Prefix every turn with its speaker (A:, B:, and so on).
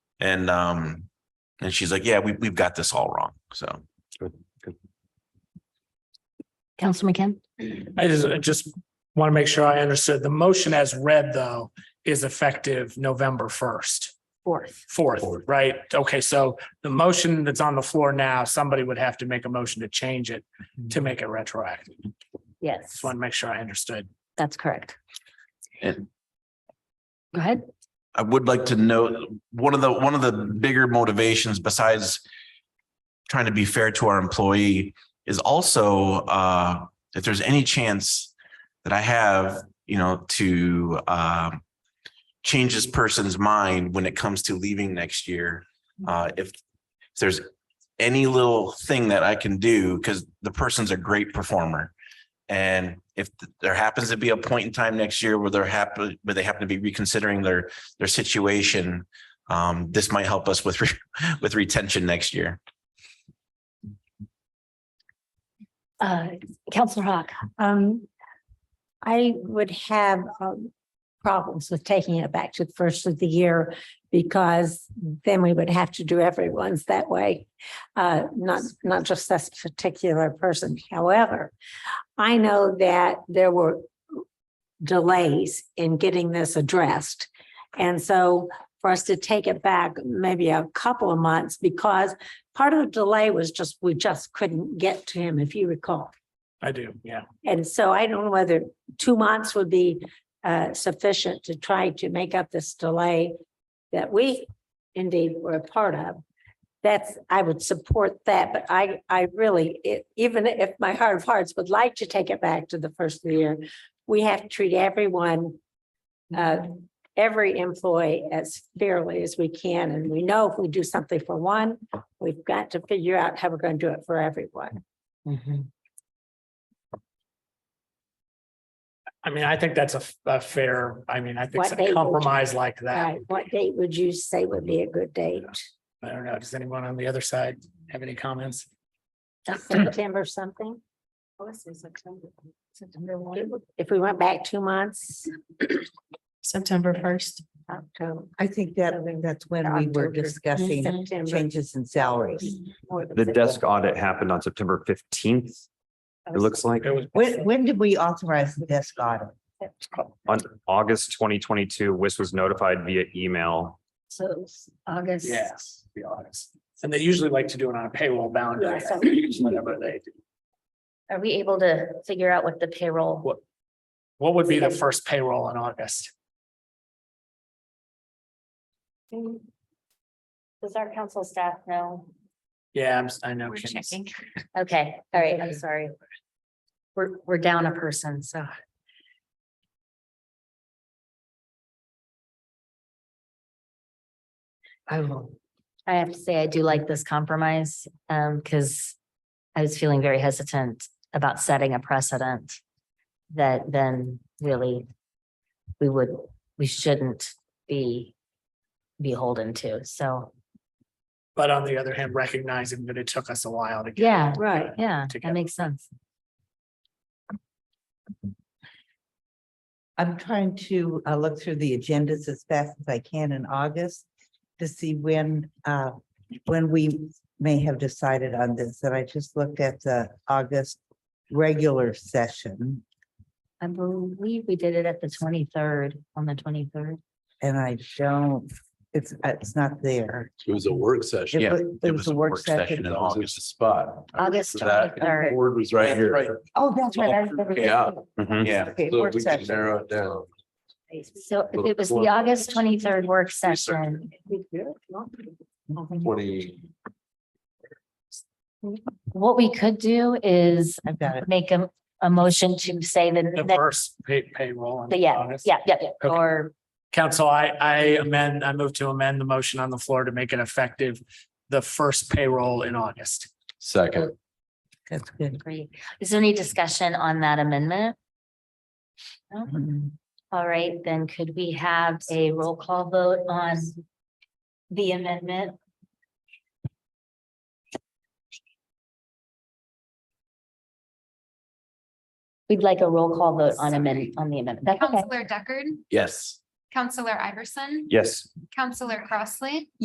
A: And um, and she's like, yeah, we we've got this all wrong. So
B: Council McKim?
C: I just, I just want to make sure I understood. The motion as read, though, is effective November first,
B: Fourth.
C: fourth, right? Okay, so the motion that's on the floor now, somebody would have to make a motion to change it to make it retroactive.
B: Yes,
C: Just want to make sure I understood.
B: that's correct.
A: And-
B: Go ahead.
A: I would like to note, one of the, one of the bigger motivations besides trying to be fair to our employee is also uh, if there's any chance that I have, you know, to um, change this person's mind when it comes to leaving next year. Uh, if, if there's any little thing that I can do, because the person's a great performer. And if there happens to be a point in time next year where they're happy, where they happen to be reconsidering their their situation. Um, this might help us with, re- with retention next year.
B: Uh, Counselor Hawk,
D: Um, I would have, um, problems with taking it back to the first of the year because then we would have to do everyone's that way. Uh, not, not just this particular person. However, I know that there were delays in getting this addressed. And so for us to take it back maybe a couple of months because part of the delay was just, we just couldn't get to him, if you recall.
C: I do, yeah.
D: And so I don't know whether two months would be uh, sufficient to try to make up this delay that we indeed were a part of. That's, I would support that, but I, I really, it- even if my heart of hearts would like to take it back to the first of the year, we have to treat everyone, uh, every employee as fairly as we can. And we know if we do something for one, we've got to figure out how we're going to do it for everyone.
C: I mean, I think that's a, f- a fair, I mean, I think
D: What
C: it's
D: they
C: a
D: would-
C: compromise like that.
D: Right, what date would you say would be a good date?
C: I don't know. Does anyone on the other side have any comments?
D: September something? If we went back two months,
E: September first.
D: October.
F: I think that, that's when we were
D: October,
F: discussing
D: September.
F: changes in salaries.
G: The desk audit happened on September fifteenth,
D: Oh,
G: it looks like,
C: It was
F: When, when did we authorize the desk audit?
G: on August twenty twenty-two, WIS was notified via email.
D: So it's August.
C: Yes, to be honest. And they usually like to do it on a payroll boundary.
D: Yeah, so-
C: Whenever they do.
B: are we able to figure out what the payroll?
C: What would be the first payroll in August?
B: Does our council staff know?
C: Yeah, I'm, s- I know.
B: We're
C: Kim's-
B: checking. Okay, all right, I'm sorry. We're, we're down a person, so.
E: I will.
B: I have to say, I do like this compromise, um, because I was feeling very hesitant about setting a precedent that then really we would, we shouldn't be beholden to. So,
C: But on the other hand, recognizing that it took us a while to get.
B: yeah,
D: Right.
B: yeah, that
C: Together.
B: makes sense.
F: I'm trying to uh, look through the agendas as fast as I can in August to see when, uh, when we may have decided on this. And I just looked at the August regular session
B: I believe we did it at the twenty-third, on the twenty-third.
F: and I don't, it's, uh, it's not there.
H: It was a work session.
F: It
A: Yeah,
F: wa- It was a work session.
A: in
H: That was
A: August.
H: the spot.
B: August
H: So that-
B: 23rd.
H: Board was right
A: Right.
H: here.
F: Oh, that's right.
H: Yeah.
G: Mhm.
A: Yeah.
F: Okay,
H: So
F: work
H: we can
F: session.
H: narrow it down.
B: So it was the August twenty-third work session.
H: Twenty,
B: What we could do is
F: I've got it.
B: make a, a motion to say that,
C: The
B: that,
C: first pay, payroll. in
B: but yeah,
C: August.
B: yeah, yeah, yeah,
C: Okay.
B: or,
C: Council, I, I amend, I move to amend the motion on the floor to make it effective the first payroll in August.
H: second.
F: That's good.
B: agree. Is there any discussion on that amendment?
F: Mhm.
B: All right, then could we have a roll call vote on the amendment? We'd like a roll call vote on amendment, on the amendment. That's okay.
I: Counselor Deckard,
H: Yes.
I: Counselor Iverson,
G: Yes.
I: Counselor Crossley.